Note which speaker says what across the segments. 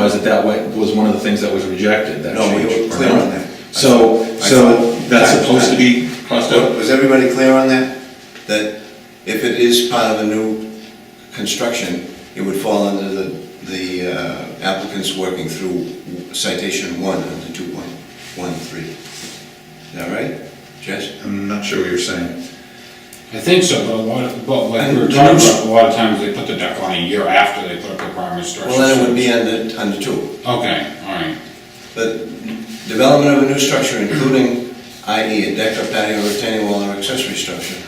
Speaker 1: that that way was one of the things that was rejected, that
Speaker 2: No, we
Speaker 1: change,
Speaker 2: were clear on
Speaker 1: right?
Speaker 2: that.
Speaker 1: So,
Speaker 2: I thought- I
Speaker 1: so
Speaker 2: thought-
Speaker 1: that's supposed to be crossed out?
Speaker 2: Was everybody clear on that? That if it is part of a new construction, it would fall under the, the uh, applicant's working through citation one under two point one three. Is that right, Jess?
Speaker 3: I'm not sure what you're saying.
Speaker 4: I think so, but a lot of, but like we were talking about, a lot of times they put the deck on a year after they put up the primary structure.
Speaker 2: Well, then it would be under, under two.
Speaker 4: Okay, all right,
Speaker 2: But development of a new structure, including i.e. a deck or patio or retaining wall or accessory structure,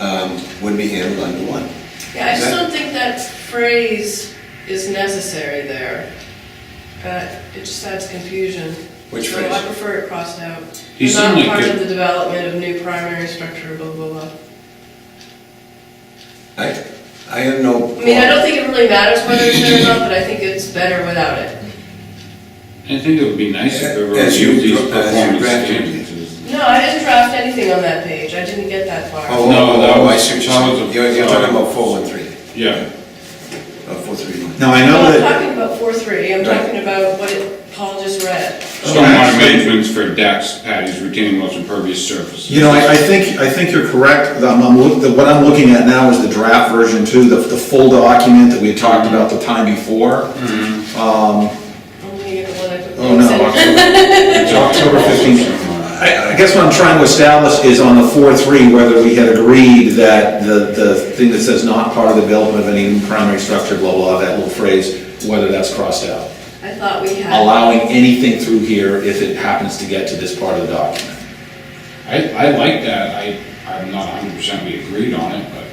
Speaker 2: um, would be handled under one.
Speaker 5: Yeah, I just
Speaker 2: That-
Speaker 5: don't think that phrase is necessary there. Uh, It just adds confusion.
Speaker 2: Which
Speaker 5: So I
Speaker 2: phrase?
Speaker 5: prefer it crossed out.
Speaker 4: You
Speaker 5: It's
Speaker 4: seem
Speaker 5: not
Speaker 4: like
Speaker 5: part
Speaker 4: you-
Speaker 5: of the development of new primary structure, blah, blah, blah.
Speaker 2: I, I have no.
Speaker 5: I mean, I don't think it really matters whether it's there or not, but I think it's better without it.
Speaker 4: I think it would be nice if we were
Speaker 2: As you-
Speaker 4: using these
Speaker 2: as you
Speaker 4: performance
Speaker 2: drafted.
Speaker 4: standards.
Speaker 5: No, I didn't draft anything on that page, I didn't get that far.
Speaker 2: Oh,
Speaker 4: No,
Speaker 2: oh,
Speaker 4: that
Speaker 2: oh, I
Speaker 4: was-
Speaker 2: see what you're
Speaker 4: that was
Speaker 2: saying.
Speaker 4: a-
Speaker 2: You're, you're talking about four one three,
Speaker 4: Yeah,
Speaker 2: uh, four three one.
Speaker 3: Now, I
Speaker 5: No,
Speaker 3: know
Speaker 5: I'm
Speaker 3: that,
Speaker 5: talking about four three, I'm
Speaker 2: Right.
Speaker 5: talking about what it- Paul just read.
Speaker 2: Oh,
Speaker 4: stormwater managements for decks, patios, retaining walls, impervious surfaces.
Speaker 3: you know, I, I think, I think you're correct. I'm, I'm, look- the- what I'm looking at now is the draft version too, the, the full document that we had talked about the time before.
Speaker 1: Mm-hmm.
Speaker 5: I'm gonna get the one I put
Speaker 3: Oh, no,
Speaker 5: links in.
Speaker 3: October, it's October fifteenth. I, I guess what I'm trying to establish is on the four, three, whether we had agreed that the, the thing that says not part of the development of any primary structure, blah, blah, that little phrase, whether that's crossed out.
Speaker 5: I thought we had.
Speaker 3: Allowing anything through here if it happens to get to this part of the document.
Speaker 4: I, I like that, I, I'm not hundred percent we agreed on it, but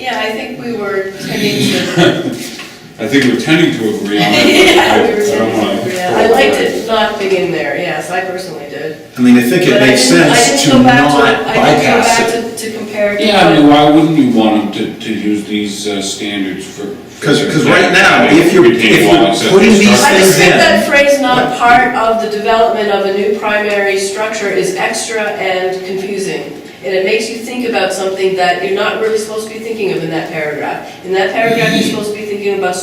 Speaker 5: Yeah, I think we were tending to
Speaker 4: I think we're tending to agree on it. but
Speaker 5: Yeah,
Speaker 4: I-
Speaker 5: we were
Speaker 4: I don't wanna-
Speaker 5: saying, yeah, I liked it not being in there, yes, I personally did.
Speaker 3: I mean, I think it
Speaker 5: But I
Speaker 3: makes
Speaker 5: didn't- I
Speaker 3: sense to
Speaker 5: didn't go back
Speaker 3: not
Speaker 5: I didn't go
Speaker 3: bypass it.
Speaker 5: back to, to compare. to
Speaker 4: Yeah, I mean,
Speaker 5: what-
Speaker 4: why wouldn't you want them to, to use these uh, standards for? for
Speaker 3: Because, because right
Speaker 4: deck,
Speaker 3: now,
Speaker 4: patio,
Speaker 3: if you're,
Speaker 4: retaining wall,
Speaker 3: if you're
Speaker 4: accessory
Speaker 3: putting these
Speaker 4: structure?
Speaker 5: I just
Speaker 3: things
Speaker 5: think that
Speaker 3: in.
Speaker 5: phrase not part of the development of a new primary structure is extra and confusing. And it makes you think about something that you're not really supposed to be thinking of in that paragraph. In that paragraph, you're supposed to be thinking about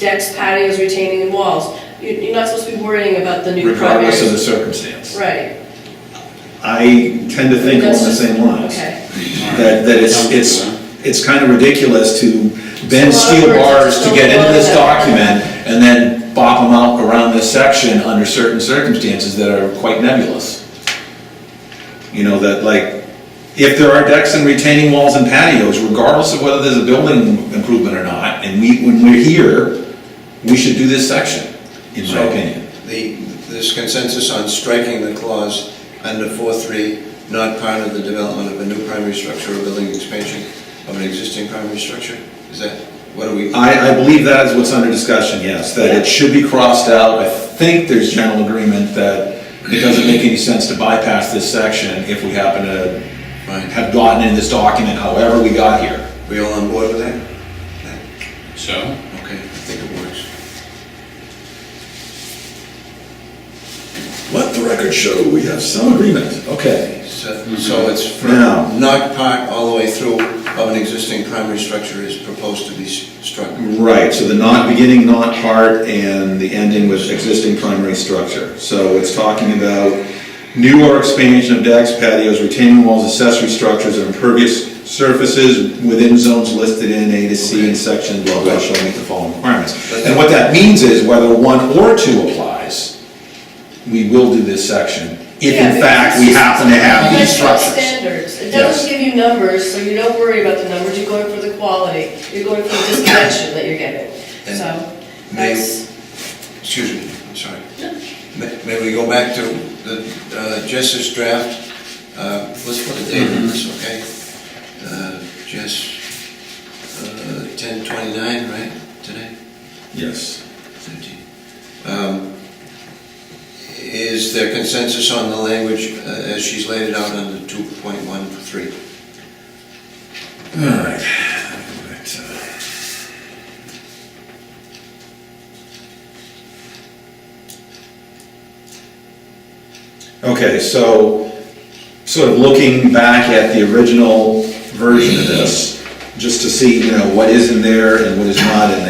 Speaker 5: decks, patios, retaining and walls. You- You're not supposed to be worrying about the new primary.
Speaker 3: Regardless of the circumstance.
Speaker 5: Right.
Speaker 3: I tend to think along the same lines.
Speaker 5: Okay.
Speaker 3: that, that it's, it's, it's kind of ridiculous to bend
Speaker 5: It's a lot of
Speaker 3: steel
Speaker 5: words,
Speaker 3: bars to
Speaker 5: it's
Speaker 3: get
Speaker 5: a lot
Speaker 3: into
Speaker 5: of
Speaker 3: this
Speaker 5: that.
Speaker 3: document and then bop them out around this section under certain circumstances that are quite nebulous. You know, that like, if there are decks and retaining walls and patios, regardless of whether there's a building improvement or not, and we, when we're here, we should do this section, in my
Speaker 2: So,
Speaker 3: opinion.
Speaker 2: The, this consensus on striking the clause under four three, not part of the development of a new primary structure or building expansion of an existing primary structure? Is that, what are we?
Speaker 3: I, I believe that is what's under discussion, yes, that it should be crossed out. I think there's general agreement that it doesn't make any sense to bypass this section if we happen to
Speaker 2: Fine.
Speaker 3: have gotten in this document however we got here.
Speaker 2: We all on board with that?
Speaker 4: So,
Speaker 2: Okay, I think it works.
Speaker 3: Let the record show we have some agreement. Okay.
Speaker 2: So so it's for
Speaker 3: Now-
Speaker 2: not part all the way through of an existing primary structure is proposed to be s- struck.
Speaker 3: Right, so the not beginning, not part, and the ending with existing primary structure. So it's talking about new or expansion of decks, patios, retaining walls, accessory structures, and impervious surfaces within zones listed in A to C in section blah blah shall meet the following requirements. And what that means is whether one or two applies, we will do this section, if
Speaker 5: Yeah,
Speaker 3: in fact we
Speaker 5: because
Speaker 3: happen to have these
Speaker 5: it's not
Speaker 3: structures.
Speaker 5: Standards, it
Speaker 3: Yes.
Speaker 5: doesn't give you numbers, so you don't worry about the numbers, you're going for the quality, you're going for the disconnection that you're getting,
Speaker 2: And
Speaker 5: so,
Speaker 2: may-
Speaker 5: that's,
Speaker 2: Excuse me, I'm sorry. May may we go back to the uh, Jess's draft? Uh, Let's put a date on this, okay? Uh, Jess, uh, 10/29, right, today?
Speaker 3: Yes.
Speaker 2: 13. Um, Is there consensus on the language uh, as she's laid it out under 2.13?
Speaker 3: All right. Okay, so sort of looking back at the original version of this, just to see, you know, what is in there and what is not in